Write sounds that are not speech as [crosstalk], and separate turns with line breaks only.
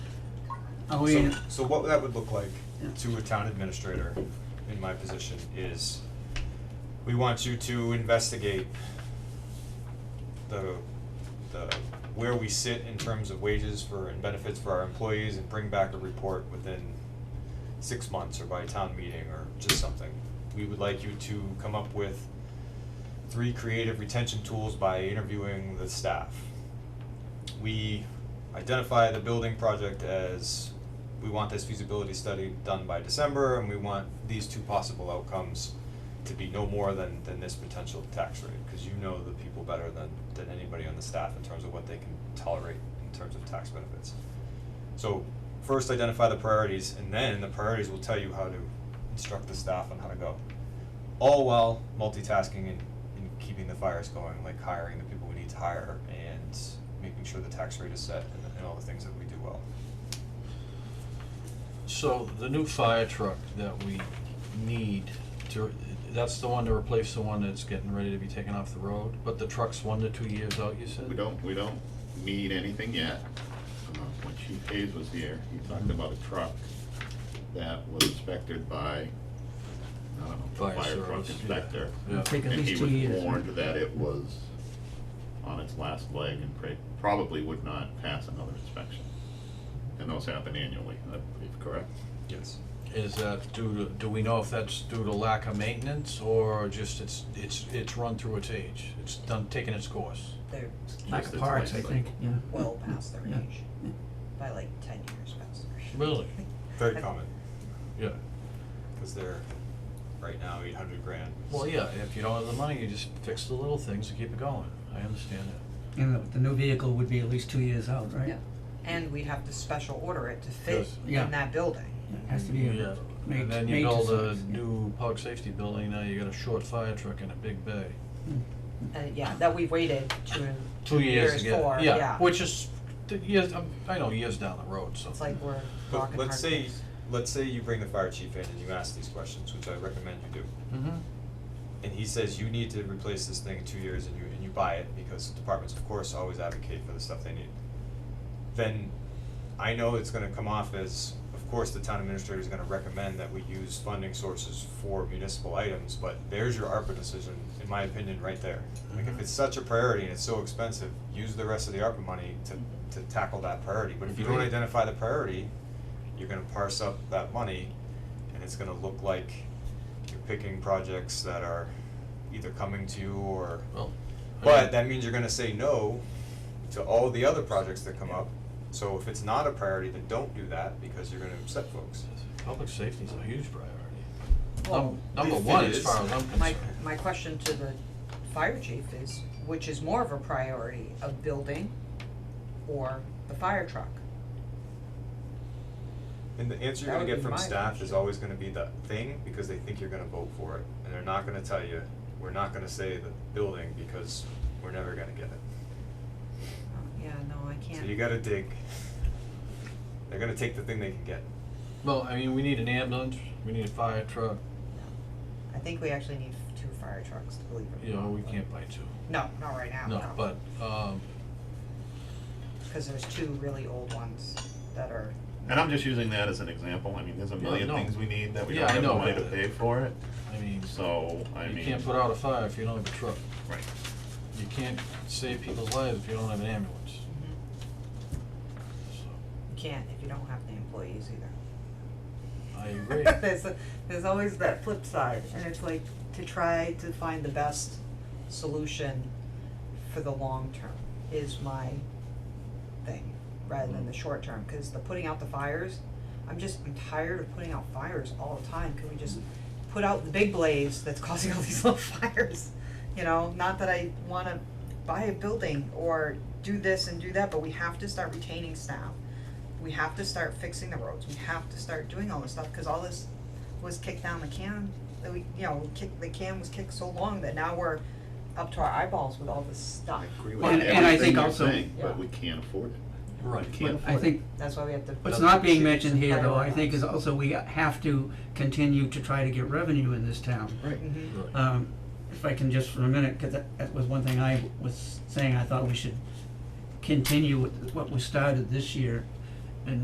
Oh,
So-
yeah.
So what that would look like
Yeah.
to a town administrator in my position is, we want you to investigate the, the, where we sit in terms of wages for, and benefits for our employees and bring back a report within six months or by town meeting or just something. We would like you to come up with three creative retention tools by interviewing the staff. We identify the building project as, we want this feasibility study done by December, and we want these two possible outcomes to be no more than, than this potential tax rate, cause you know the people better than, than anybody on the staff in terms of what they can tolerate in terms of tax benefits. So, first identify the priorities, and then the priorities will tell you how to instruct the staff on how to go all while multitasking and, and keeping the fires going, like hiring the people we need to hire and making sure the tax rate is set and, and all the things that we do well.
So the new fire truck that we need to, that's the one to replace the one that's getting ready to be taken off the road? But the truck's one to two years out, you said?
We don't, we don't need anything yet. Uh, When Chief Hayes was here, he talked about a truck that was inspected by, I don't know,
Fire
fire truck
service, yeah.
inspector.
Yeah.
Take at
And
least two
he was
years.
warned that it was on its last leg and pra- probably would not pass another inspection. And those happen annually, I believe, correct?
Yes.
Is that due to, do we know if that's due to lack of maintenance or just it's, it's, it's run through its age? It's done, taking its course?
They're
Lack of
Just its
parts, I
life
think, yeah.
well past their
Yeah.
age, by like ten years past their age.
Really?
Very common,
Yeah.
because they're right now eight hundred grand.
Well, yeah, if you don't have the money, you just fix the little things and keep it going. I understand that.
And the- the new vehicle would be at least two years out, right?
Yeah. And we'd have to special order it to fit
Yes.
Yeah.
in that building.
Yeah, It has to be
Yeah.
a made,
And then
made
you
to
build a
size, yeah.
new public safety building, now you got a short fire truck and a big bay.
And Uh, yeah, that we waited two,
two years to get it.
for, yeah.
which is th- years. um, I know years down the road. So
It's like we're
But
rocking hard
let's say,
place.
let's say you bring the fire chief in and you ask these questions, which I recommend you do.
Mhm.
and he says you need to replace this thing in two years and you and you buy it because departments of course always advocate for the stuff they need. Then I know it's gonna come off as, of course, the town administrator is gonna recommend that we use funding sources for municipal items, but there's your ARPA decision, in my opinion, right there. Like if
Mhm.
it's such a priority and it's so expensive, use the rest of the ARPA money to to tackle that priority, but if you don't
Agreed.
identify the priority, you're gonna parse up that money and it's gonna look like you're picking projects that are either coming to you or,
Well, I
but
mean,
that means you're gonna say no to all the other projects that come up. So if it's not a priority, then don't do that because you're gonna upset folks.
public safety is a huge priority.
Well,
Num- number
if it
one, as
is,
far as I'm concerned.
my, my question to the fire chief is, which is more of a priority, a building or the fire truck?
And the answer
That
you're gonna
would
get
be
from
my
staff is
question.
always gonna be the thing because they think you're gonna vote for it. And they're not gonna tell you, we're not gonna say the building because we're never gonna get it.
Oh, Yeah, no, I
So you
can't,
gotta dig. They're gonna take the thing they can get.
well, I mean, we need an ambulance. We need a fire truck.
I think we actually need two fire trucks to believe it.
You know, we can't buy two.
No, not right now,
No, but um,
Cause there's two really old ones that are,
And I'm just using that as an example, I mean, there's a
Yeah,
million
no.
things we need that we
Yeah,
don't
I
have the
know,
money to
but-
pay for it,
I mean,
so, I mean.
you can't put out a fire if you don't have a truck.
Right.
You can't save people's lives if you don't have an ambulance. So
you can't if you don't have the employees either.
I agree.
[laughs] there's there's always that flip side, and it's like to try to find the best solution for the long term is my thing, rather than the short term, cause the putting out the fires, I'm just, I'm tired of putting out fires all the time, can we just put out the big blaze that's causing all [laughs] these little fires? You know, not that I wanna buy a building or do this and do that, but we have to start retaining staff we have to start fixing the roads, we have to start doing all this stuff, cause all this was kicked down the can, that we, you know, we kicked, the can was kicked so long that now we're up to our eyeballs with all this stuff.
I agree
Well,
with
and- and I
everything
think
you're
also-
saying,
Yeah.
but we can't afford it,
Right.
we can't afford it.
I think
That's why we have to.
What's not being mentioned here, though, I think, is also we have to continue to try to get revenue in this town.
Right.
Mhm.
Right.
Um, if I can just for a minute, cause that, that was one thing I was saying, I thought we should continue with what we started this year